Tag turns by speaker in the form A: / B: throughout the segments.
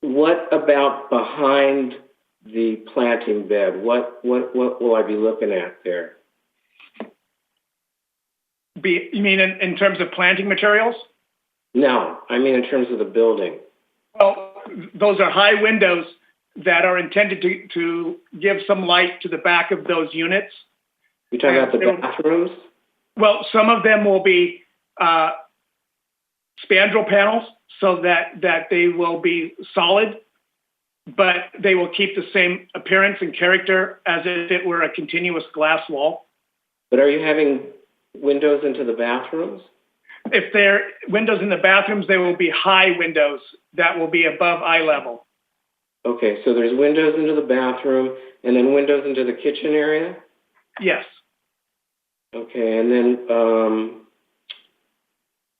A: what about behind the planting bed? What, what, what will I be looking at there?
B: Be, you mean in, in terms of planting materials?
A: No, I mean in terms of the building.
B: Well, those are high windows that are intended to, to give some light to the back of those units.
A: You're talking about
B: There-
A: the bathrooms?
B: Well, some of them will be uh, spandrel panels so that, that they will be solid, but they will keep the same appearance and character as if it were a continuous glass wall.
A: But are you having windows into the bathrooms?
B: If there are windows in the bathrooms, they will be high windows that will be above eye level.
A: Okay, so there's windows into the bathroom and then windows into the kitchen area?
B: Yes.
A: Okay, and then um,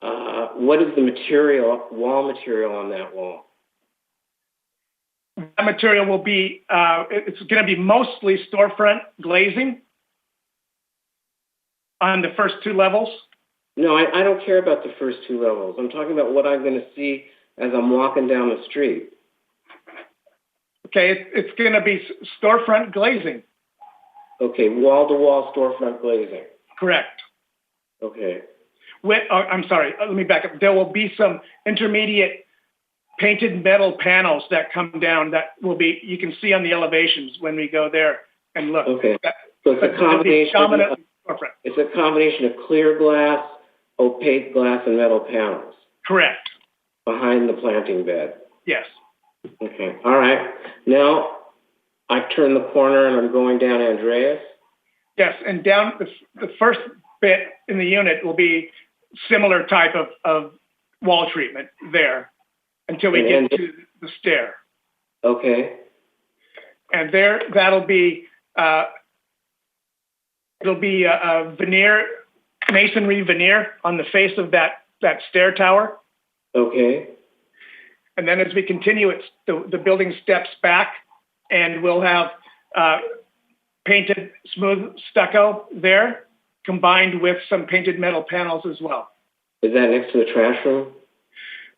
A: uh, what is the material, wall material on that wall?
B: That material will be, uh, it- it's going to be mostly storefront glazing on the first two levels.
A: No, I, I don't care about the first two levels. I'm talking about what I'm going to see as I'm walking down the street.
B: Okay, it's, it's going to be s- storefront glazing,
A: Okay, wall to wall storefront glazing.
B: correct?
A: Okay,
B: With, oh, I'm sorry, uh, let me back up. There will be some intermediate painted metal panels that come down that will be, you can see on the elevations when we go there and look.
A: okay.
B: That-
A: So it's
B: But
A: a
B: it'll be
A: combination. Of,
B: dominantly storefront.
A: it's a combination of clear glass, opaque glass, and metal panels
B: Correct.
A: behind the planting bed.
B: Yes.
A: Okay. All right. Now I turn the corner and I'm going down Andreas.
B: Yes. And down the, f- the first bit in the unit will be similar type of, of wall treatment there until we
A: And-
B: get to the stair.
A: Okay.
B: And there, that'll be, uh, it'll be a, a veneer, masonry veneer on the face of that, that stair tower.
A: Okay.
B: And then as we continue, it's the, the building steps back and we'll have uh, painted smooth stucco there combined with some painted metal panels as well.
A: Is that next to the trash room?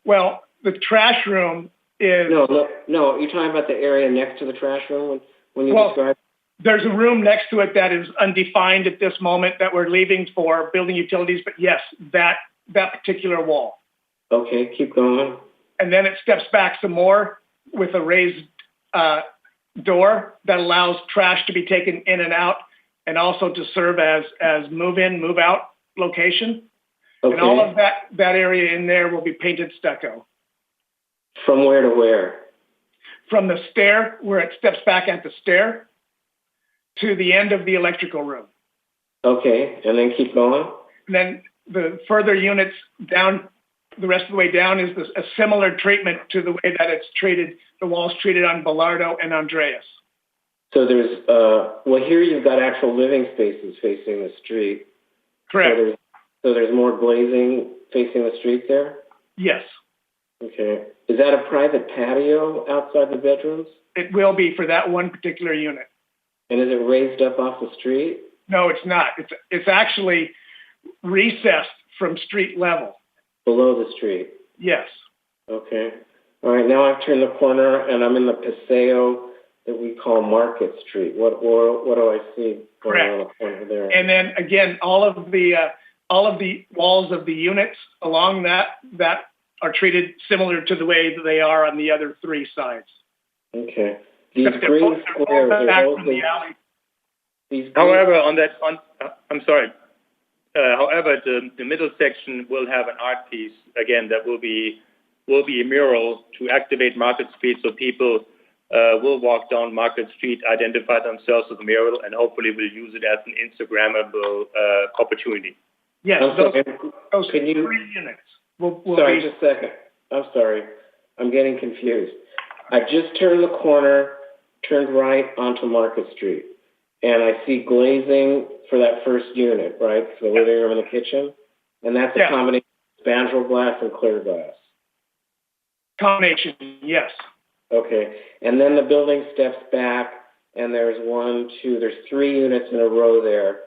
B: Well, the trash room is,
A: No, no, no. You're talking about the area next to the trash room when, when you
B: Well-
A: describe.
B: there's a room next to it that is undefined at this moment that we're leaving for building utilities, but yes, that, that particular wall.
A: Okay, keep going.
B: And then it steps back some more with a raised uh, door that allows trash to be taken in and out and also to serve as, as move in, move out location.
A: Okay.
B: And all of that, that area in there will be painted stucco.
A: From where to where?
B: From the stair, where it steps back at the stair, to the end of the electrical room.
A: Okay, and then keep going.
B: And then the further units down, the rest of the way down is this, a similar treatment to the way that it's treated, the walls treated on Bellardo and Andreas.
A: So there's uh, well here you've got actual living spaces facing the street.
B: Correct.
A: So there's so there's more glazing facing the street there.
B: Yes,
A: Okay. Is that a private patio outside the bedrooms?
B: it will be for that one particular unit.
A: And is it raised up off the street?
B: No, it's not. It's it's actually recessed from street level.
A: Below the street.
B: Yes,
A: Okay. All right, now I've turned the corner and I'm in the Paseo that we call Market Street. What or what do I see going on the corner there?
B: and then again, all of the uh, all of the walls of the units along that that are treated similar to the way that they are on the other three sides.
A: okay. These
B: Except they're
A: green
B: both- they're both
A: squares,
B: back
A: they're
B: from the
A: mostly,
B: alley.
A: these green
C: However, on that, on, uh, I'm sorry. Uh, however, the, the middle section will have an art piece again that will be will be a mural to activate Market Street, so people uh, will walk down Market Street, identify themselves with the mural, and hopefully will use it as an Instagrammable uh, opportunity.
B: Yes,
A: I'm
B: those,
A: sorry.
B: those
A: can you-
B: three units will, will
A: Sorry,
B: be
A: just a second. I'm sorry. I'm getting confused. I just turned the corner, turned right onto Market Street, and I see glazing for that first unit, right? For the living room and the kitchen. And that's a
B: Yeah.
A: combination of spandrel glass and clear glass.
B: combination. Yes,
A: Okay. And then the building steps back, and there's one, two, there's three units in a row there.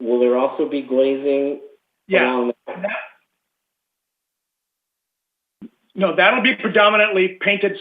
A: Will there also be glazing
B: yeah.
A: around that?
B: No, that'll be predominantly painted